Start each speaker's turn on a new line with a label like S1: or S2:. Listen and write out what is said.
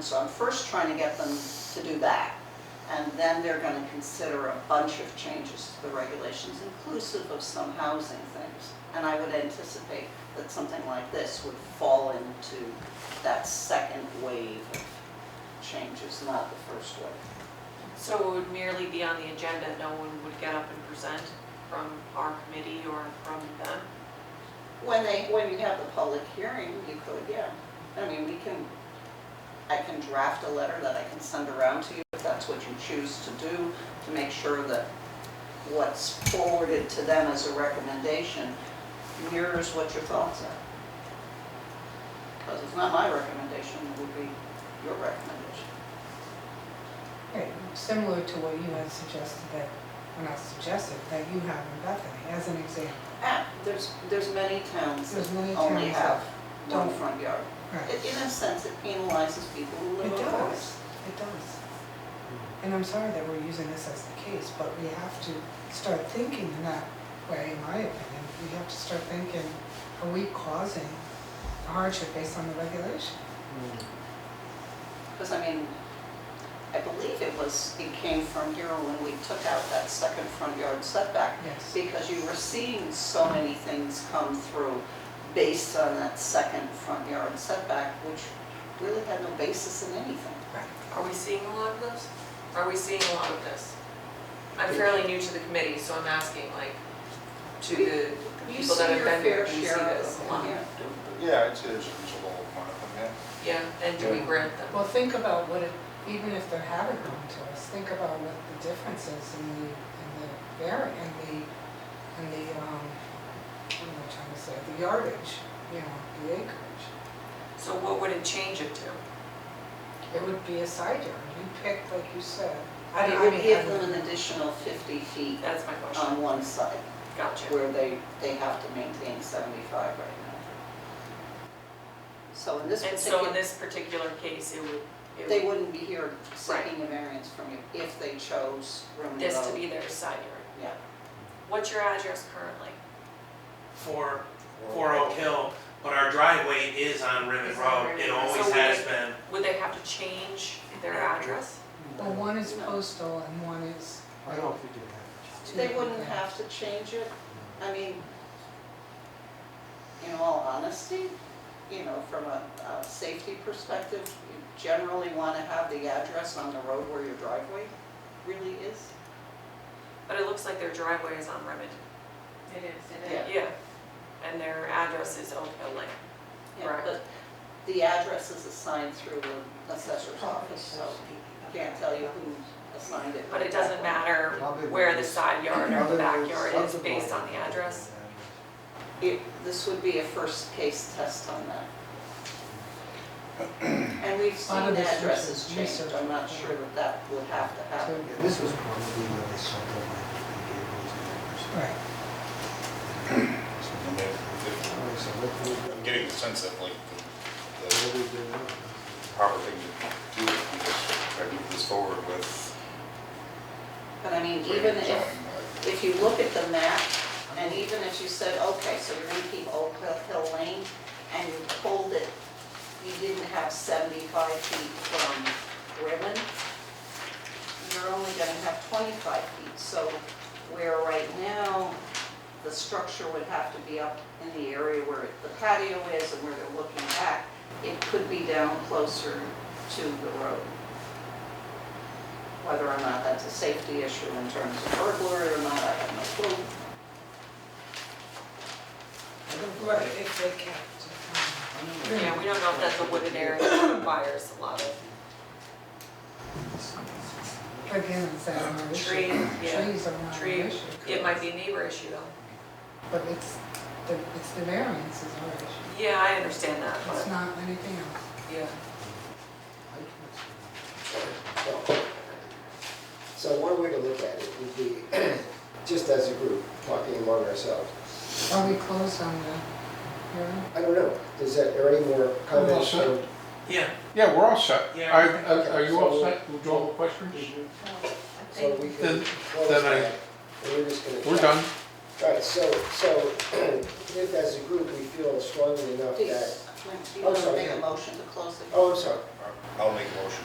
S1: So I'm first trying to get them to do that, and then they're gonna consider a bunch of changes to the regulations, inclusive of some housing things. And I would anticipate that something like this would fall into that second wave of changes, not the first wave.
S2: So it would merely be on the agenda, no one would get up and present from our committee or from them?
S1: When they, when you have the public hearing, you could, yeah. I mean, we can, I can draft a letter that I can send around to you if that's what you choose to do, to make sure that what's forwarded to them as a recommendation mirrors what your thoughts are. Because it's not my recommendation, it would be your recommendation.
S3: Right, Similar to what you had suggested that, when I suggested that you have in Bethany, as an example.
S1: Ah, there's, there's many towns that
S3: There's many
S1: only
S3: towns
S1: have
S3: that
S1: one
S3: don't.
S1: front yard.
S3: Right.
S1: It- In a sense, it penalizes people who live on
S3: It does,
S1: corners.
S3: it does. And I'm sorry that we're using this as the case, but we have to start thinking in that way, in my opinion. We have to start thinking, are we causing a hardship based on the regulation?
S1: Because I mean, I believe it was, it came from here when we took out that second front yard setback.
S3: Yes.
S1: Because you were seeing so many things come through based on that second front yard setback, which really had no basis in anything.
S2: Are we seeing a lot of this? Are we seeing a lot of this? I'm fairly new to the committee, so I'm asking like to the
S1: You
S2: people
S1: see
S2: that
S1: your
S2: have been
S1: fair
S2: here, do you see
S1: share of
S2: this a
S1: them,
S2: lot?
S1: yeah.
S4: Yeah, I'd say there's a reasonable amount of them,
S2: Yeah, and do we grant them?
S3: Well, think about what, it- even if they haven't come to us, think about what the difference is in the, in the vari, in the, in the, um, what am I trying to say, the yardage, you know, the acreage.
S2: So what would it change it to?
S3: It would be a side yard, you pick, like you said. I
S1: It
S3: don't- I
S1: would
S3: mean,
S1: give
S3: I don't-
S1: them an additional 50 feet
S2: That's my question.
S1: on one side,
S2: Gotcha.
S1: where they, they have to maintain 75 right now. So in this
S2: And
S1: particular.
S2: so in this particular case, it would,
S1: They
S2: it would,
S1: wouldn't be here seeking a variance from you if they chose Roman
S2: this to
S1: road.
S2: be their side yard.
S1: Yeah,
S2: What's your address currently?
S5: for,
S4: yeah.
S5: for Oak Hill, but our driveway is on Rivet
S2: It's on
S5: Road.
S2: Rivet
S5: It
S2: Road.
S5: always
S2: So we-
S5: has been.
S2: Would they have to change their address?
S3: Well, one is
S1: No.
S3: postal and one is.
S6: I don't think you have.
S3: two
S1: they wouldn't
S3: different.
S1: have to change it, I mean, in all honesty, you know, from a, a safety perspective, you generally wanna have the address on the road where your driveway really is.
S2: But it looks like their driveway is on Remington.
S7: It is, it
S1: Yeah.
S7: is.
S2: Yeah, and their address is Oak Hill Lane.
S1: Yeah,
S2: Correct.
S1: But the address is assigned through the assessor's office, so I can't tell you who assigned it.
S2: But it doesn't matter where the side yard or the backyard is based on the address.
S1: It, this would be a first case test on that. And we've seen
S3: A lot of this
S1: addresses
S3: research-
S1: changed, I'm not sure that that would have to
S3: So-
S1: happen.
S6: This was probably where they sold the land. they gave those numbers.
S3: Right,
S4: And they- they-
S6: Alright, so what do we do?
S4: I'm getting the sense that like the-
S6: What
S4: the
S6: do we do now?
S4: proper thing to do would be just try to move this forward with.
S1: But I mean, even if, if you look at the map, and even if you said, okay, so you're gonna keep Oak Hill- Hill Lane, and you pulled it, you didn't have seventy-five feet from Ribbon, you're only gonna have twenty-five feet, so where right now, the structure would have to be up in the area where the patio is and where they're looking back, it could be down closer to the road. Whether or not that's a safety issue in terms of burglary or not, I have no clue.
S3: right, if they um, kept.
S2: Yeah, we don't know if that's a wooded area that requires a lot of
S3: um, Again, it's that our issue.
S2: trees, yeah.
S3: Trees are not an
S2: Tree,
S3: issue.
S2: it might be a neighbor issue though.
S3: But it's, the, it's the variance is our issue.
S2: Yeah, I understand that,
S3: It's
S2: but,
S3: not anything else.
S2: yeah.
S6: I can't see.
S8: So one way to look at it would be, just as a group, talking among ourselves.
S3: Are we closed on the hearing?
S8: I don't know, is that, are any more comments?
S4: set.
S8: or-
S5: Yeah,
S9: Yeah, we're all set.
S5: Yeah.
S9: Are, are- are you all set? Do you all have questions?
S8: So we can
S9: Then-
S8: close
S9: then I-
S8: that, and we're just gonna.
S9: We're
S8: chat.
S9: done.
S8: All right, so, so if as a group, we feel strongly enough that
S1: When, do you
S8: Oh,
S1: want to
S8: sorry,
S1: make a
S8: yeah.
S1: motion to close the
S8: Oh, I'm sorry.
S4: I'll make a motion